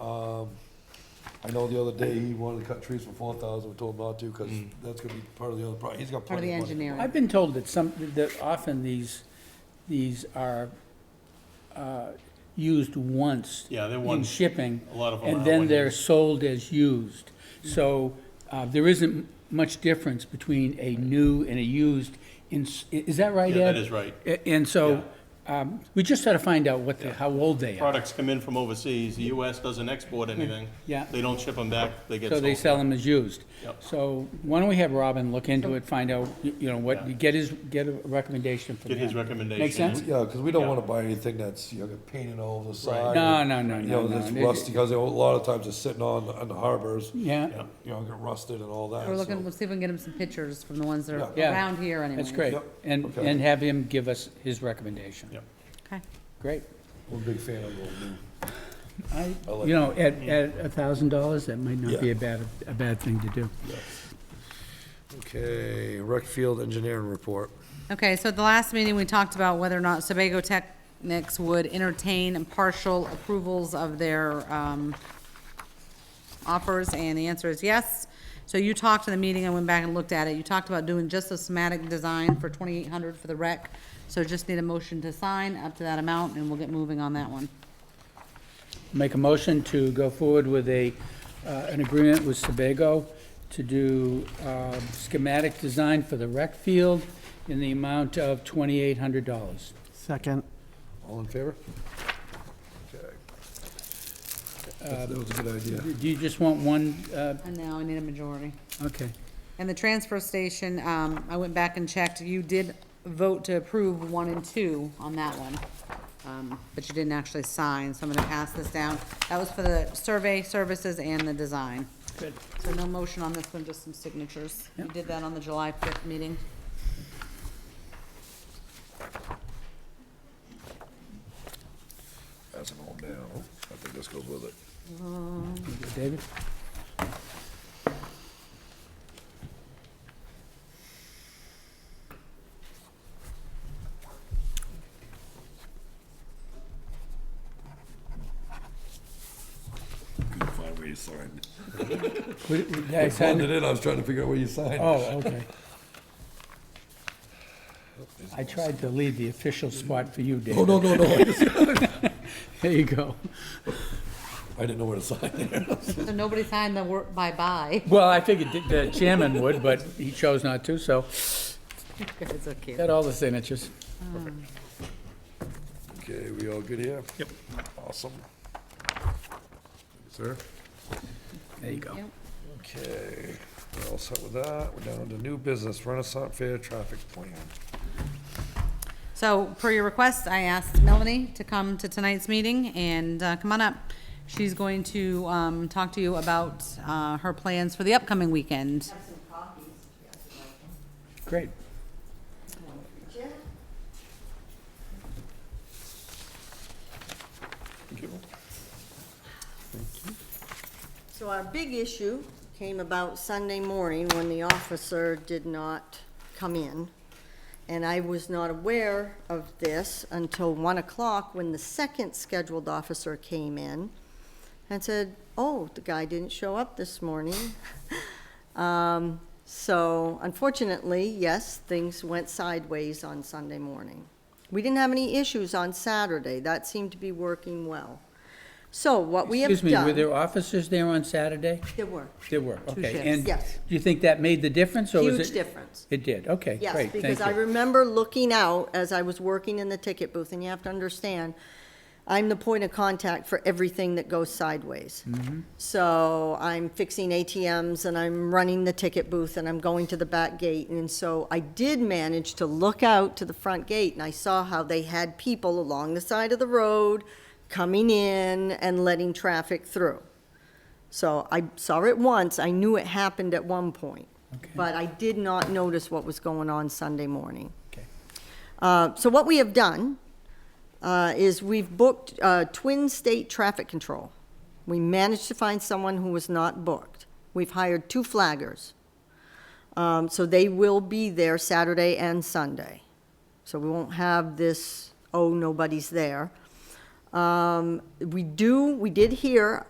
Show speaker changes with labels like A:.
A: Um, I know the other day he wanted to cut trees for four thousand, we told him not to, because that's gonna be part of the other project, he's got
B: part of the
A: plenty of money.
B: engineering.
C: I've been told that some, that often these, these are uh, used once
D: Yeah, they're
C: in
D: one,
C: shipping,
D: a lot of them are.
C: and then
D: one-
C: they're sold as used. So uh, there isn't much difference between a new and a used, in- is that right, Ed?
D: Yeah, that is right.
C: A- And so, um, we just got to find out what, the- how old they are.
D: Products come in from overseas, the US doesn't export anything.
C: Yeah.
D: They don't ship them back, they get
C: So they
D: sold.
C: sell them as used.
D: Yep.
C: So why don't we have Robin look into it, find out, you you know, what, get his, get a recommendation from
D: Get his
C: him.
D: recommendation.
C: sense?
A: Yeah, because we don't
D: Yeah.
A: wanna buy anything that's, you know, painted all over the
D: Right.
A: side.
C: No, no, no,
A: You
C: no,
A: know,
C: no.
A: that's rusty, because a lot of times it's sitting on, on the harbors, you
C: Yeah,
D: Yeah.
A: know, get rusted and all that.
B: We're
A: so-
B: looking, we'll see if we can get him some pictures from the ones that are
C: Yeah.
B: around here anyway.
C: that's great.
A: Yep,
C: And,
A: okay.
C: and have him give us his recommendation.
D: Yep.
B: Okay.
C: Great.
A: I'm a big fan of little new.
C: I,
A: I like
C: you know, at, at a thousand dollars, that might not be
A: Yeah.
C: a bad, a bad thing to do.
A: Okay, rec field engineering report.
B: Okay, so at the last meeting, we talked about whether or not Sebago Technics would entertain partial approvals of their um, offers, and the answer is yes. So you talked in the meeting, I went back and looked at it, you talked about doing just a somatic design for twenty-eight hundred for the rec, so just need a motion to sign up to that amount, and we'll get moving on that one.
C: Make a motion to go forward with a, uh, an agreement with Sebago to do uh, schematic design for the rec field in the amount of twenty-eight hundred dollars.
E: Second.
A: All in favor? Okay. That was a good idea.
C: Do you just want one, uh,
B: And now I need a majority.
C: okay.
B: And the transfer station, um, I went back and checked, you did vote to approve one and two on that one. Um, but you didn't actually sign, so I'm gonna pass this down. That was for the survey services and the design.
C: Good.
B: So no motion on this one, just some signatures. You
C: Yep.
B: did that on the July fifth meeting.
A: That's going down. I think this goes with it.
C: David?
A: Couldn't find where you signed.
C: Would- would- I
A: Signed it
C: signed-
A: in, I was trying to figure out where you signed.
C: Oh, okay. I tried to leave the official spot for you,
A: Oh, no,
C: David.
A: no, no, I just-
C: There you go.
A: I didn't know where to sign there.
B: So nobody signed the word bye-bye.
C: Well, I figured th- the chairman would, but he chose not to, so
B: You guys are cute.
C: got all the signatures.
A: Okay, we all good here? Yep. Awesome. Sir?
C: There you go.
B: Yep.
A: Okay, we're all set with that. We're down to new business, Renaissance Fair traffic plan.
B: So per your request, I asked Melanie to come to tonight's meeting and uh, come on up. She's going to um, talk to you about uh, her plans for the upcoming weekend.
C: Great.
F: So our big issue came about Sunday morning when the officer did not come in. And I was not aware of this until one o'clock when the second scheduled officer came in and said, oh, the guy didn't show up this morning. Um, So unfortunately, yes, things went sideways on Sunday morning. We didn't have any issues on Saturday. That seemed to be working well. So what we have done.
C: Excuse me, were there officers there on Saturday?
F: There were.
C: There were, okay.
B: shifts.
C: And do
F: Yes.
C: you think that made the difference, or was it?
F: Huge difference.
C: It did, okay, great,
F: Yes,
C: thank you.
F: because I remember looking out as I was working in the ticket booth, and you have to understand, I'm the point of contact for everything that goes sideways.
C: Mm-hmm.
F: So I'm fixing ATMs, and I'm running the ticket booth, and I'm going to the back gate. And so I did manage to look out to the front gate, and I saw how they had people along the side of the road coming in and letting traffic through. So I saw it once, I knew it happened at one point,
C: Okay.
F: but I did not notice what was going on Sunday morning.
C: Okay.
F: Uh, So what we have done uh, is we've booked uh, Twin State Traffic Control. We managed to find someone who was not booked. We've hired two flaggers. Um, So they will be there Saturday and Sunday. So we won't have this, oh, nobody's there. Um, We do, we did hear